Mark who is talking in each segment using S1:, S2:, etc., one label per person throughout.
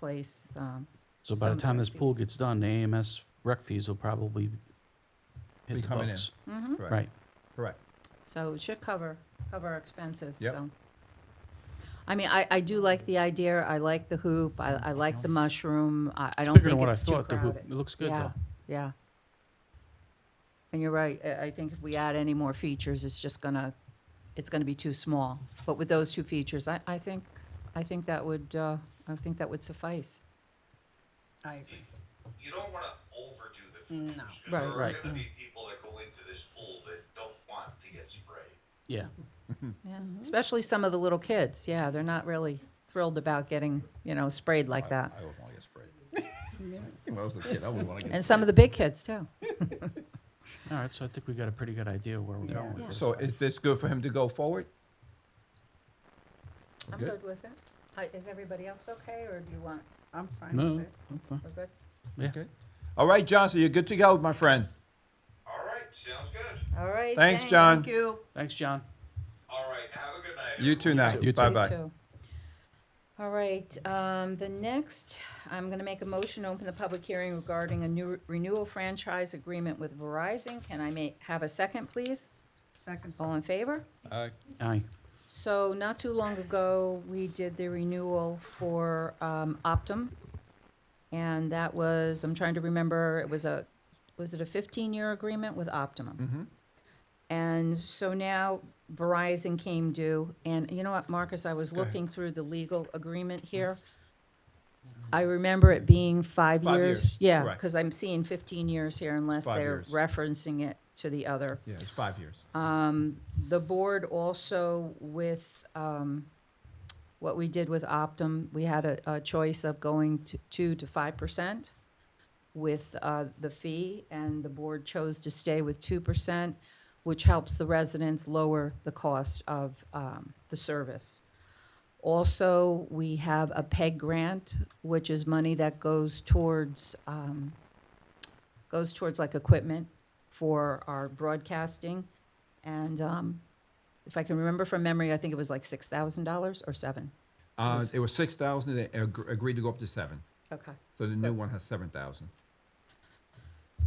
S1: replace, um,
S2: So by the
S1: Some
S2: time this pool
S1: fees.
S2: gets done, the AMS rec fees will probably
S3: Be
S2: hit the
S3: coming in.
S2: books.
S1: mhm.
S3: Correct.
S2: Right.
S3: Correct.
S1: so it should cover, cover our expenses,
S3: Yep.
S1: so. I mean, I, I do like the idea, I like the hoop, I, I like the mushroom, I, I don't
S2: Bigger than
S1: think
S2: what I
S1: it's too
S2: thought. The hoop,
S1: crowded.
S2: it looks good
S1: Yeah,
S2: though.
S1: Yeah. And you're right, I, I think if we add any more features, it's just gonna, it's gonna be too small. But with those two features, I, I think, I think that would, uh, I think that would suffice.
S4: I agree.
S5: you don't want to overdo the features. 'cause
S1: Right,
S5: there are
S2: right.
S5: going to be people that go into this pool that don't want to get sprayed.
S2: Yeah.
S1: Yeah, especially some of the little kids, yeah, they're not really thrilled about getting, you know, sprayed like that.
S3: I would want to get sprayed. If I was a kid, I would want to get.
S1: And some of the big kids too.
S2: All right. So I think we got a pretty good idea where we're
S4: Yeah.
S2: going with this.
S3: So is this good for him to go forward?
S1: I'm
S3: Good.
S1: good with it. Hi, Is everybody else okay, or do you want,
S4: I'm fine
S2: No.
S4: with it.
S2: okay.
S1: we're good?
S2: Yeah.
S3: Okay. All right, John, so you're good to go, my friend.
S5: All right, sounds good.
S1: All right,
S3: Thanks,
S1: thanks.
S3: John.
S4: Thank you.
S2: Thanks, John.
S5: All right, have a good night.
S3: You
S5: everyone.
S3: too now.
S2: You too.
S1: You
S3: Bye-bye.
S1: too. All right, um, the next, I'm gonna make a motion, to open the public hearing regarding a new renewal franchise agreement with Verizon. Can I ma- have a second, please?
S4: Second.
S1: All in favor?
S2: Aye.
S1: So not too long ago, we did the renewal for um, Optum. And that was, I'm trying to remember, it was a, was it a 15-year agreement with
S3: Mm-hmm.
S1: Optimum? And so now Verizon came due, and you know what, Marcus, I was looking through the legal agreement
S3: Mm-hmm.
S1: here. I remember it being five years.
S3: Five years,
S1: Yeah,
S3: correct.
S1: because I'm seeing 15 years here unless
S3: five
S1: they're
S3: years.
S1: referencing it to the other.
S3: Yeah, it's five years.
S1: Uh, The board also with, um, what we did with Optum, we had a, a choice of going to two to five percent with, uh, the fee, and the board chose to stay with two percent, which helps the residents lower the cost of, um, the service. Also, we have a PEG grant, which is money that goes towards, um, goes towards like equipment for our broadcasting. And um, if I can remember from memory, I think it was like $6,000 or seven.
S3: Uh, it was six thousand, they ag- agreed to go up to seven.
S1: Okay.
S3: So the new one has seven thousand.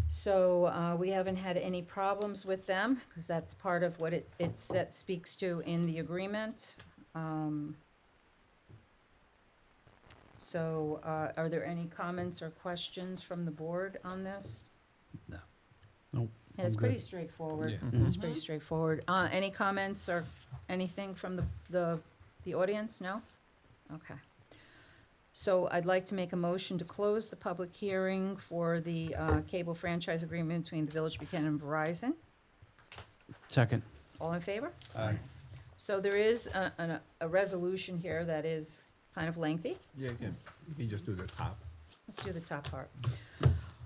S1: So uh, we haven't had any problems with them because that's part of what it, it set- speaks to in the agreement. Um, So uh, are there any comments or questions from the board on this?
S2: Nope.
S1: And It's
S2: I'm good.
S1: pretty straightforward.
S3: Yeah.
S1: It's pretty straightforward. Uh, Any comments or anything from the, the, the audience? No? Okay. So I'd like to make a motion to close the public hearing for the uh, cable franchise agreement between the Village of Buchanan and Verizon.
S2: Second.
S1: All in favor? So there is a, an- a resolution here that is kind of lengthy.
S3: Yeah, you can, you can just do the top.
S1: Let's do the top part.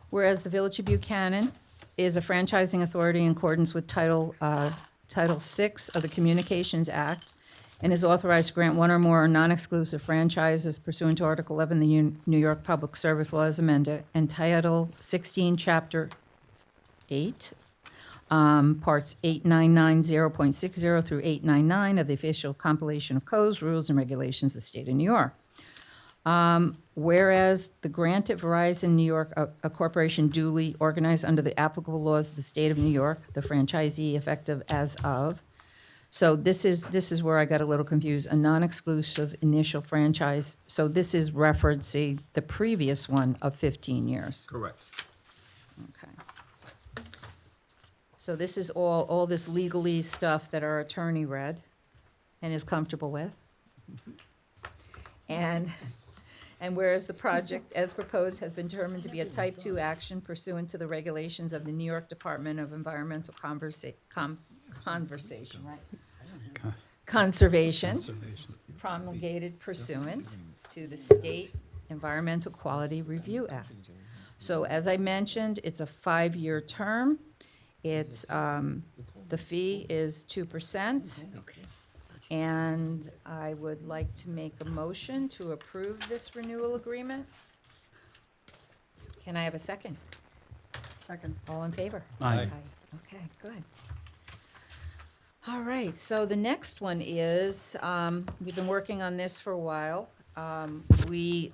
S1: Whereas the Village of Buchanan is a franchising authority in accordance with Title, uh, Title VI of the Communications Act, and is authorized to grant one or more non-exclusive franchises pursuant to Article 11 of the Un- New York Public Service Law as amended, and Title 16, Chapter 8, um, Parts 8990.60 through 899 of the official compilation of codes, rules, and regulations of the state of New York. Um, Whereas the grant at Verizon New York, a a corporation duly organized under the applicable laws of the state of New York, the franchisee effective as of. So this is, this is where I got a little confused, a non-exclusive initial franchise. So this is referencing the previous one of 15 years.
S3: Correct.
S1: Okay. So this is all, all this legalese stuff that our attorney read and is comfortable with. And, and whereas the project as proposed has been determined to be a type two action pursuant to the regulations of the New York Department of Environmental Conversa- Com- Conversation, right? Conservation promulgated pursuant to the State Environmental Quality Review Act. So as I mentioned, it's a five-year term. It's, um, the fee is two percent. And I would like to make a motion to approve this renewal agreement. Can I have a second?
S4: Second.
S1: All in favor?
S2: Aye.
S1: Okay, good. All right, so the next one is, um, we've been working on this for a while. Um, We